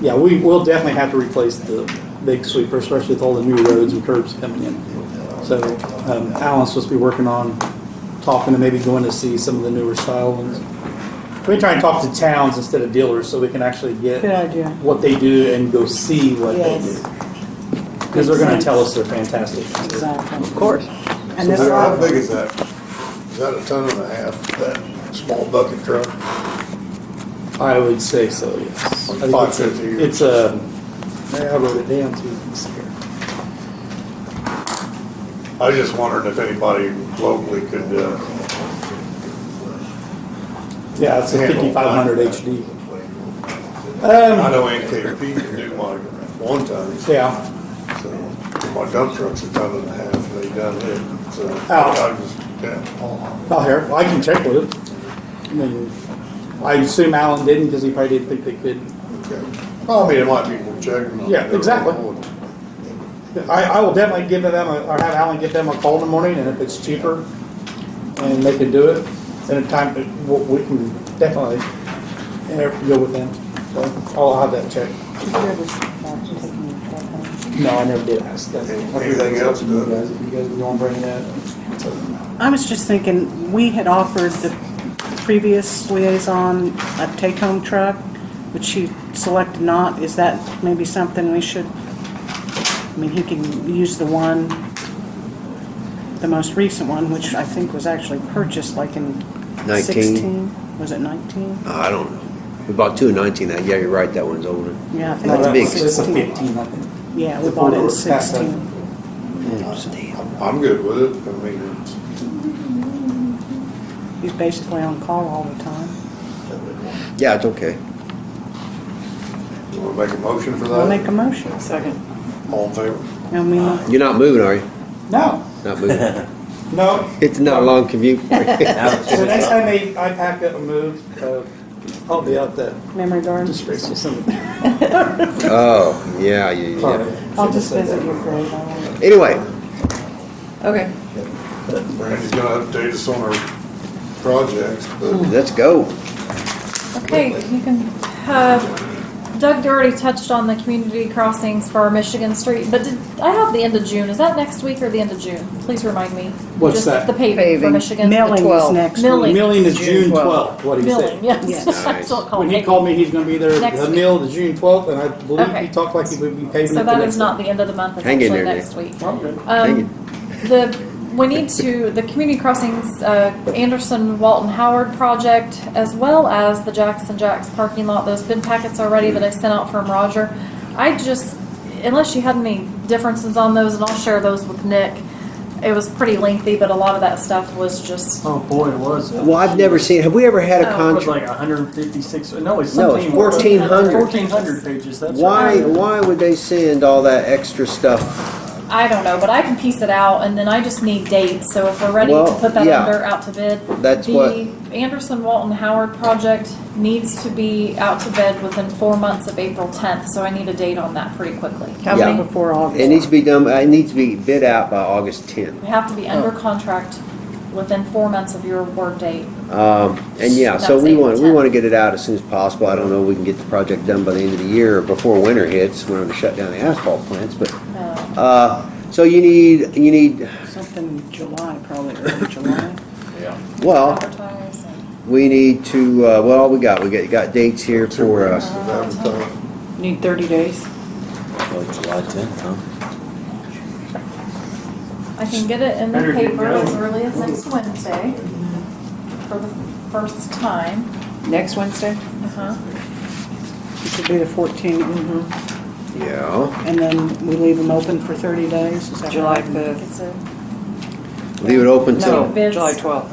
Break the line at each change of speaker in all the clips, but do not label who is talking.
Yeah, we will definitely have to replace the big sweeper, especially with all the new roads and curbs coming in. So um, Alan's supposed to be working on talking to maybe going to see some of the newer style ones. We try and talk to towns instead of dealers so we can actually
Good
get
idea.
what they do and go see what they
Yes.
do. Because they're gonna tell us they're fantastic.
Exactly.
Of course.
And this
How- How big
lot,
is that? Is that a ton and a half, that small bucket truck?
I would say so, yes. I think
Five
it's a-
fifty or-
It's uh, a, yeah, I wrote it down too. Let's see here.
I was just wondering if anybody locally could, uh,
Yeah, it's a
handle that.
fifty-five hundred HD. Um,
I know NKP can do my one ton, so
Yeah,
my dump truck's a ton and a half, they done it, so.
Ow.
I just, yeah.
not here. Well, I can check with it. I mean, I assume Alan didn't because he probably didn't think they could.
Okay. Well, I mean, it might be more checking.
Yeah, exactly. I, I will definitely give them, a- or have Alan give them a call in the morning and if it's cheaper and they can do it, then in time, we we can definitely uh, go with them. So I'll have that checked.
did you ever start taking your truck home?
No, I never did ask that.
Anything else
You
to-
guys, you guys want to bring that?
I was just thinking, we had offered the previous liaison a take-home truck, but she selected not. Is that maybe something we should, I mean, he can use the one, the most recent one, which I think was actually purchased like in
19.
sixteen? Was it nineteen?
Uh, I don't know. We bought two in nineteen, that, yeah, you're right, that one's older.
Yeah, I think
No,
it
That's
that
big.
was
was- It's a
sixteen.
fifteen, I think.
Yeah, we bought it in
It's a four-door.
sixteen.
I'm good with it, I mean,
He's basically on call all the time.
Yeah, it's okay.
you wanna make a motion
Uh,
for
I'll make
that?
a motion.
Second.
All in favor?
And we, no,
You're not moving, are you?
No,
Not moving.
no.
It's not a long commute for you.
So
Oh,
next time they, I pack up and move, uh, I'll be out there.
memory garden.
Disgraceful
Oh, yeah, yeah, yeah.
I'll just visit your grave. I won't-
Anyway,
Okay.
Randy's gonna update us on our projects, but
let's go.
Okay, you can have, Doug already touched on the community crossings for Michigan Street, but did, I have the end of June. Is that next week or the end of June? Please remind me.
What's
Just
that?
The paving for
Paving.
Michigan.
Milling is
12th.
next
Milling.
week.
Million is
June
June
12th.
twelfth, what he
Milling,
said.
yes.
Yes.
That's what it's called,
When he
paving.
called me, he's gonna be there,
Next
the
week.
mill is June twelfth, and I believe he
Okay.
talked like he would be paving.
So
it the
that
next
is not the end of the month, it's
Hang in
actually
there,
next week.
day. Okay.
Hang
Um, the, we need to, the community crossings, uh, Anderson Walton Howard project, as well as the Jackson Jacks parking lot, those bid packets are ready that I sent out from Roger. I just, unless you had any differences on those, and I'll share those with Nick, it was pretty lengthy, but a lot of that stuff was just,
Oh boy, it was.
Well, I've never seen, have we ever had a
Oh.
It was
contract?
like 156. No, it's
No, it's
something.
1400.
1400 pages. That's
Why,
Right.
why would they send all that extra stuff?
I don't know, but I can piece it out, and then I just need dates, so if we're ready to
Well,
put that
yeah.
under, out to bid.
That's what-
The Anderson Walton Howard project needs to be out to bid within four months of April tenth, so I need a date on that pretty quickly.
How
Yeah.
many before August?
It needs to be done, it needs to be bid out by August tenth.
We have to be
Oh.
under contract within four months of your award date.
Um, and yeah, so
That's
we
April
want, we
10th.
want to get it out as soon as possible. I don't know if we can get the project done by the end of the year or before winter hits, we're going to shut down the asphalt plants, but,
Uh,
uh, so you need, you need,
Something in July, probably early July.
well,
advertise and-
we need to, uh, well, we got, we got, got dates here for,
Two
uh,
weeks of advertising.
Need 30 days?
July 10th, huh?
I can get it in the
Better get
paper as
going.
early as next Wednesday for the first time.
Next Wednesday?
Uh-huh.
It should be the 14th,
Mm-hmm.
mhm.
yeah.
and then we leave them open for 30 days, is that
July
right?
5th?
It's a,
Leave it open
No,
till,
Bids.
July 12th.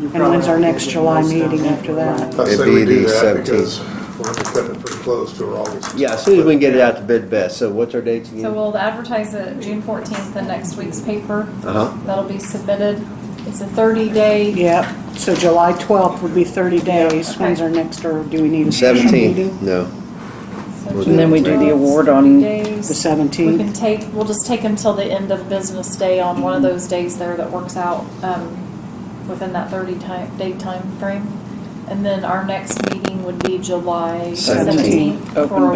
You
And when's our
probably
next
have
July
to get most of
meeting
them.
after that?
I say
It'd
we
be
do
the
that
17th.
because we're gonna cut it pretty close to our August.
yeah, as soon as we can get it out to bid best. So what's our dates
So
again?
we'll advertise it June fourteenth in next week's paper.
Uh-huh.
That'll be submitted. It's a thirty-day,
Yeah, so July 12th would be 30 days. When's our next, or do we need a special meeting?
Seventeenth, no.
And then we do the award on,
The
days. We
17th?
can take, we'll just take until the end of business day on one
Mm-hmm.
of those days there that works out, um, within that thirty time, day frame, And then our next meeting would be July
Seventeenth.
seventeenth for
Open